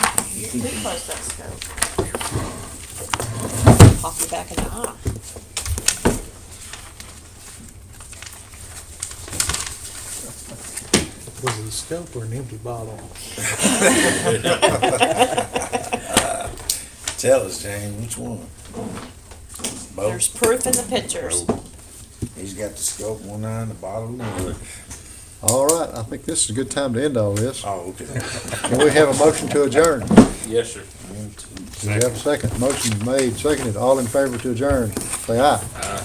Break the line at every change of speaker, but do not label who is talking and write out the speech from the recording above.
We
teaching.
closed that scope.
Pop you back in the eye.
Was it a scope or an empty bottle?
Tell us, James, which one?
There's
Both.
proof in the pictures.
He's got the scope, one eye and the bottle of the wood.
All right, I think this is a good time to end all this.
Oh, okay.
Can we have a motion to adjourn?
Yes, sir.
One, two,
Do we have a second? Motion made, seconded, all in favor to adjourn, say aye.